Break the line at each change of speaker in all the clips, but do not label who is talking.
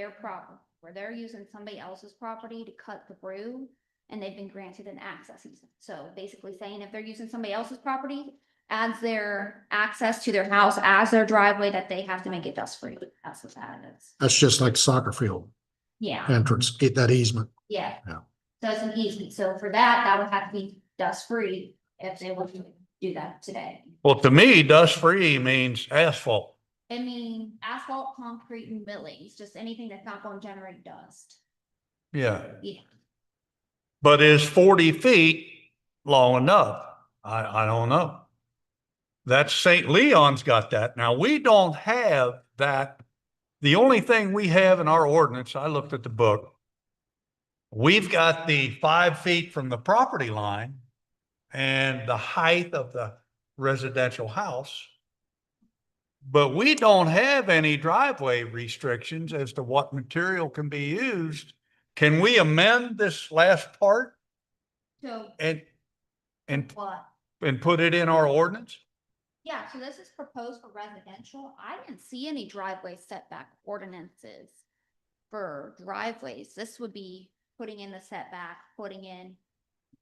their problem, where they're using somebody else's property to cut through, and they've been granted an access easement. So basically saying if they're using somebody else's property, adds their access to their house as their driveway, that they have to make it dust-free. That's what that is.
That's just like soccer field
Yeah.
entrance, get that easement.
Yeah.
Yeah.
So it's an easement, so for that, that would have to be dust free if they were to do that today.
Well, to me, dust free means asphalt.
I mean, asphalt, concrete and millings, just anything that's not gonna generate dust.
Yeah.
Yeah.
But is forty feet long enough? I, I don't know. That's St. Leon's got that. Now, we don't have that. The only thing we have in our ordinance, I looked at the book. We've got the five feet from the property line and the height of the residential house. But we don't have any driveway restrictions as to what material can be used. Can we amend this last part
So
and, and,
what?
and put it in our ordinance?
Yeah, so this is proposed for residential. I didn't see any driveway setback ordinances for driveways. This would be putting in the setback, putting in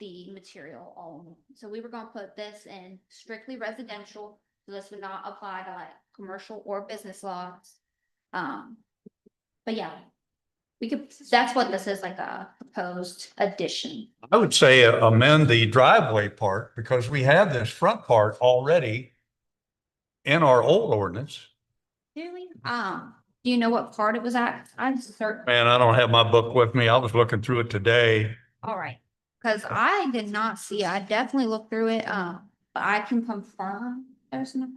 the material all. in one. So we were gonna put this in strictly residential, so this would not apply to like commercial or business laws. Um, but yeah, we could, that's what this is, like a proposed addition.
I would say amend the driveway part because we have this front part already in our old ordinance.
Really? Um, do you know what part it was at? I'm certain.
Man, I don't have my book with me. I was looking through it today.
All right, because I did not see, I definitely looked through it, um, but I can confirm there's no.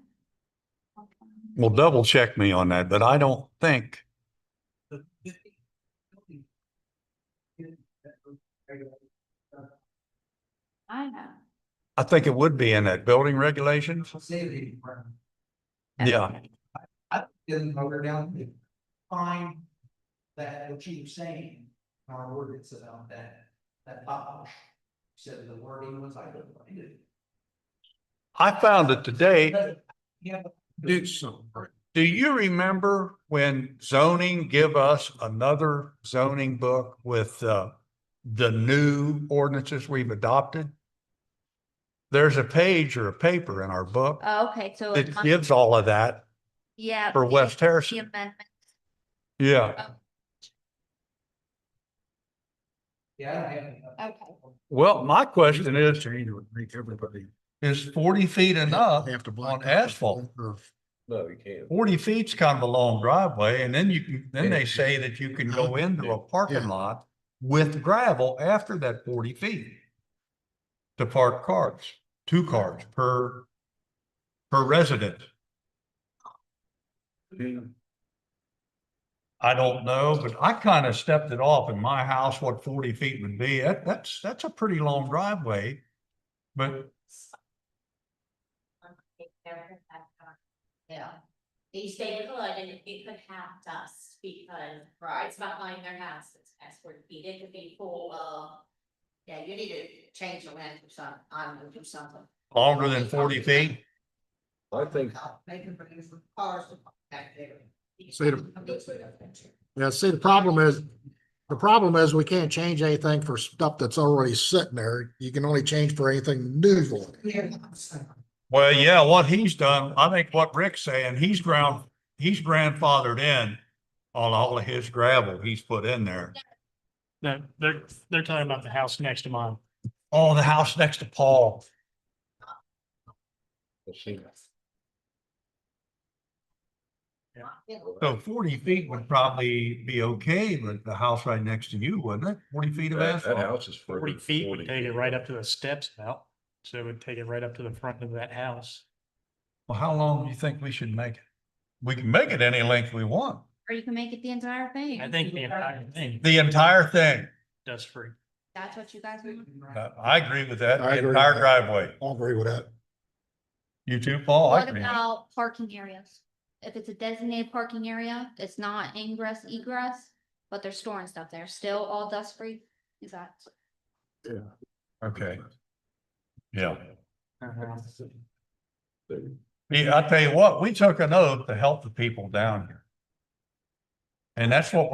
Well, double check me on that, but I don't think
I know.
I think it would be in that building regulations.
Safety department.
Yeah.
I didn't vote down to find that what you were saying, in our ordinance about that, that polish. Said the wording was, I couldn't find it.
I found it today.
Yeah. but-
Do so. Do you remember when zoning give us another zoning book with uh the new ordinances we've adopted? There's a page or a paper in our book
Oh, Okay, so. it
that
must-
gives all of that
Yeah.
for
the-
West
The
Harrison.
amendment,
Yeah,
Yeah, I don't have it.
okay.
well, my question is,
Change would make everybody.
is forty feet enough?
Have to block
uh, on asphalt.
Or
No, you can't.
Forty feet's kind of a long driveway and then you can, then they say that you can go into a parking
Yeah.
lot with gravel after that forty feet. To park cars, two cars per, per resident. I don't know, but I kind of stepped it off in my house, what forty feet would be. That, that's, that's a pretty long driveway. But
Yeah. They say could, and it could have dust because. Right. It's behind their house, it's as for feet, it could be uh, full of.
Yeah, you need to change the land to some, I'm gonna do something.
longer than forty feet,
I think
Make them bring some cars to park back there.
Say the- Yeah, see, the problem is, the problem is we can't change anything for stuff that's already sitting there. You can only change for anything new. for it.
Yeah.
Well, yeah, what he's done, I think what Rick's saying, he's ground, he's grandfathered in on all of his gravel he's put in there.
No, they're, they're talking about the house next to mine.
Oh, the house next to Paul.
we'll see.
So forty feet would probably be okay, but the house right next to you, wouldn't it? Forty feet of
That, that
asphalt.
house is further.
Forty
than
feet
40.
would take it right up to the steps about, so it would take it right up to the front of that house.
Well, how long do you think we should make it? We can make it any length we want,
Or you can make it the entire
I
thing.
think the entire thing
the entire thing.
does free.
That's what you guys want.
I I agree with that,
I
the
agree with
entire
that.
driveway.
I agree with that.
You too,
Oh,
Paul? I
What
agree.
about parking areas? If it's a designated parking area, it's not ingress egress, but they're storing stuff there, still all dust free. Exactly.
Okay. Yeah.
There.
Yeah, I tell you what, we took an oath to help the people down here. And that's what